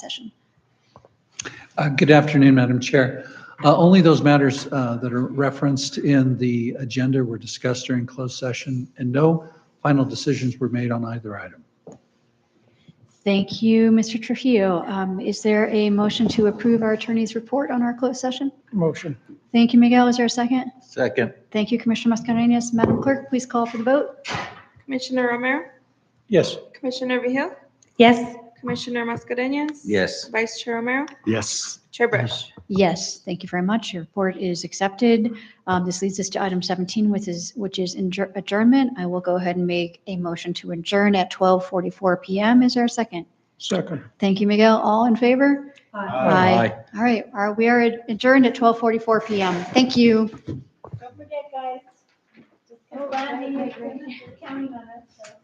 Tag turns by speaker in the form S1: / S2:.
S1: session.
S2: Uh, Good afternoon, Madam Chair. Uh, Only those matters uh, that are referenced in the agenda were discussed during closed session, and no final decisions were made on either item.
S1: Thank you, Mr. Trujillo. Um, Is there a motion to approve our attorney's report on our closed session?
S3: Motion.
S1: Thank you, Miguel. Is there a second?
S3: Second.
S1: Thank you, Commissioner Mascherinius. Madam Clerk, please call for the vote.
S4: Commissioner Romero,
S3: Yes.
S4: Commissioner Vehil,
S5: Yes.
S4: Commissioner Mascarenhas.
S3: Yes.
S4: Vice Chair Romero,
S3: Yes.
S4: Chair Brush.
S1: Yes, thank you very much. Your report is accepted. Um, This leads us to item 17, which is, which is adjour- adjournment. I will go ahead and make a motion to adjourn at 12:44 PM. Is there a second?
S3: Second.
S1: Thank you, Miguel. All in favor? Aye. All right, Are- we are adjourned at 12:44 PM. Thank you.
S6: Don't forget, guys. Just come by, you're counting on us, so.